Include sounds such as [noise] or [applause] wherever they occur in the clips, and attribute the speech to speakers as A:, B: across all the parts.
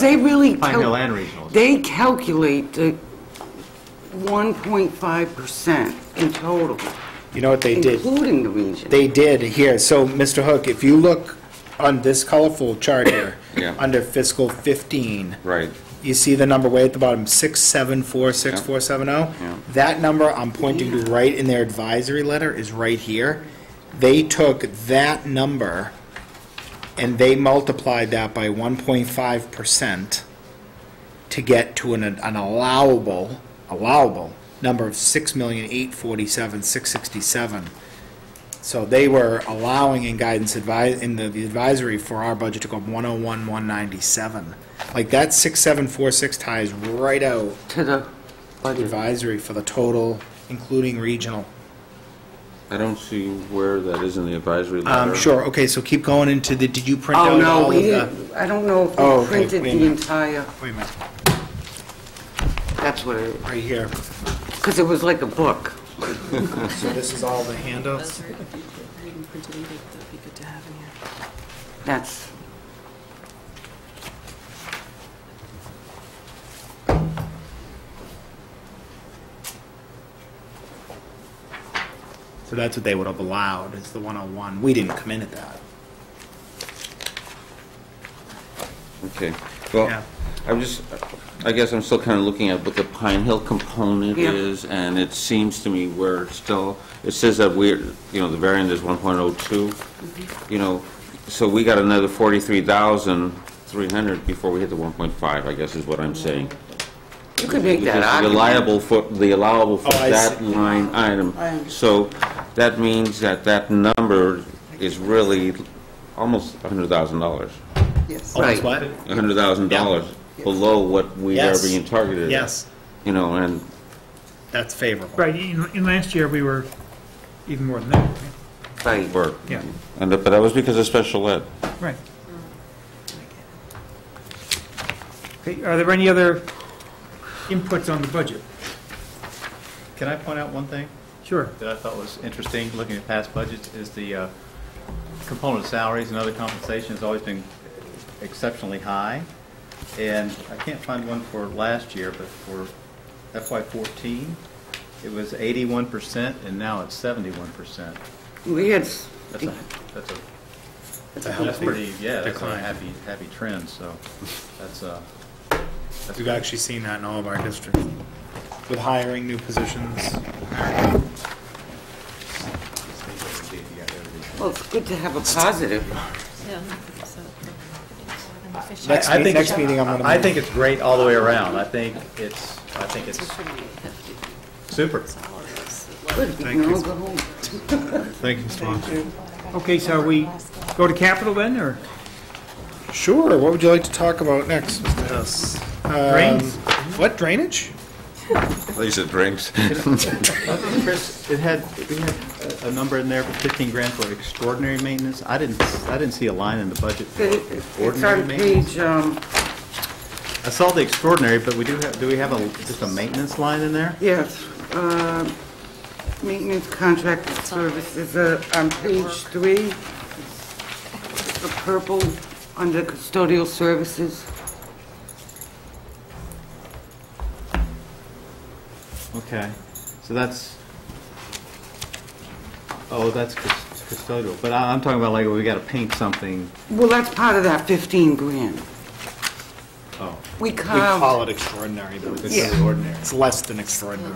A: They really.
B: Pine
A: cal-
B: Hill and regionals.
A: They calculate the 1.5% in total,
C: You know what they did?
A: including the region.
C: They did here. So, Mr. Hook, if you look on this colorful chart here,
D: [coughs] Yeah.
C: under fiscal 15,
D: Right,
C: you see the number way at the bottom, 6746470?
D: Yeah.
C: oh? That number I'm pointing to right in their advisory letter is right here. They took that number and they multiplied that by 1.5% to get to an an allowable, allowable number of 6,847,667. So they were allowing in guidance advi, in the the advisory for our budget to go up 101, 197. Like that 6746 ties right out
A: To the budget.
C: advisory for the total, including regional.
D: I don't see where that is in the advisory letter.
C: Um, sure, okay, so keep going into the, did you print
A: Oh,
C: out
A: no,
C: all of
A: we,
C: the?
A: didn't- I don't know if
C: Oh,
A: we
C: okay,
A: printed
C: wait a minute.
A: the entire,
C: Wait a minute,
A: that's what it,
C: right here.
A: because it was like a book.
C: So this is all the handouts?
E: Those are, we didn't print it, either, but that'd be good to have in here.
A: That's,
C: So that's what they would have allowed, is the 101. We didn't come in at that.
D: Okay,
C: Yeah.
D: well, I'm just, I guess I'm still kind of looking at what the Pine Hill component
A: Yeah.
D: is, and it seems to me we're still, it says that we're, you know, the variant is 1.02,
C: Mm-hmm.
D: you know, so we got another 43,300 before we hit the 1.5, I guess is what I'm saying.
A: you could make that
D: Because the
A: argument.
D: reliable for, the allowable for
C: Oh, I
D: that
C: see.
D: line item.
A: I understand.
D: So that means that that number is really almost $100,000.
F: Yes.
C: Almost
A: Right.
C: Oh, what?
D: $100,000 below what we are
C: Yes.
D: being targeted. at.
C: Yes,
D: You know, and,
C: that's favorable.
G: Right, in, in last year, we were even more than that, right?
A: Right.
D: or-
G: Yeah.
D: and, but that was because of special ed.
G: right. Okay, are there any other inputs on the budget?
B: Can I point out one thing
G: Sure.
B: that I thought was interesting, looking at past budgets, is the uh, component of salaries and other compensation has always been exceptionally high. And I can't find one for last year, but for FY fourteen, it was eighty-one percent, and now it's seventy-one percent.
A: We had,
B: That's a, that's a
C: It's a
B: That's
C: healthy
B: pretty, yeah, that's a
C: decline.
B: happy, happy trend, so that's, uh, that's
C: We've actually seen that in all of our districts, with hiring new positions.
A: well, it's good to have a positive.
E: Yeah. I'm happy to set up an efficient-
C: Next
B: I- I
C: me-
B: think-
C: next meeting, I'm gonna
B: I
C: move.
B: think it's great all the way around. I think it's, I think
E: It's a
B: it's
E: pretty hefty
B: super.
E: dollars.
A: Good, we can all go home.
B: Thank you, Steve.
G: Okay, so are we go to capital then, or
C: Sure, what would you like to talk about next, Mr. Hess?
G: Drains.
C: Um, What, drainage?
D: These are drinks.
B: Chris, it had, we had a- a number in there for fifteen grand for extraordinary maintenance. I didn't, I didn't see a line in the budget for
A: It- It's
B: ordinary
A: on
B: maintenance.
A: page, um,
B: I saw the extraordinary, but we do have, do we have a, just a maintenance line in there?
A: Yes, uh, maintenance contracted services uh, on page three, the purple, under custodial services.
B: Okay, so that's, oh, that's cus- custodial, but I- I'm talking about like, we gotta paint something,
A: Well, that's part of that 15 grand.
B: oh,
A: We
C: We call
G: Um,
A: carved,
C: it extraordinary, but
B: this
A: Yeah.
B: is ordinary.
C: it's less than extraordinary.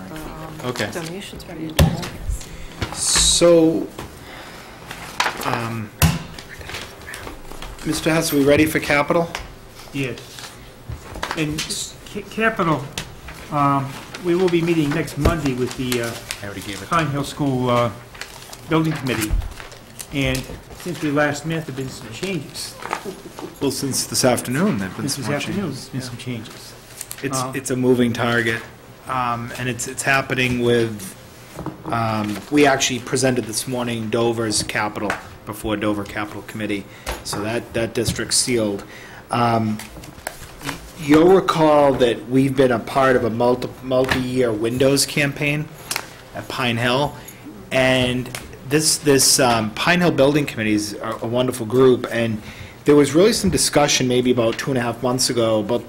G: Um,
B: Okay.
E: Donations from the.
C: So, um, Mr. Hess, we ready for capital?
G: Yes. And ca- capital, um, we will be meeting next Monday with the uh,
C: I already gave
G: Pine Hill School uh, Building Committee. And since we last met, there've been some changes.
C: Well, since this afternoon, there've been
G: Since
C: some
G: this
C: more
G: afternoon, there's
C: changes.
G: been some changes.
C: It's,
G: Uh,
C: it's a moving target, um, and it's, it's happening with, um, we actually presented this morning Dover's capital before Dover Capital Committee, so that, that district's sealed. Um, y- You'll recall that we've been a part of a multi, multi-year windows campaign at Pine Hill, and this, this um, Pine Hill Building Committees are a wonderful group, and There was really some discussion maybe about two and a half months ago about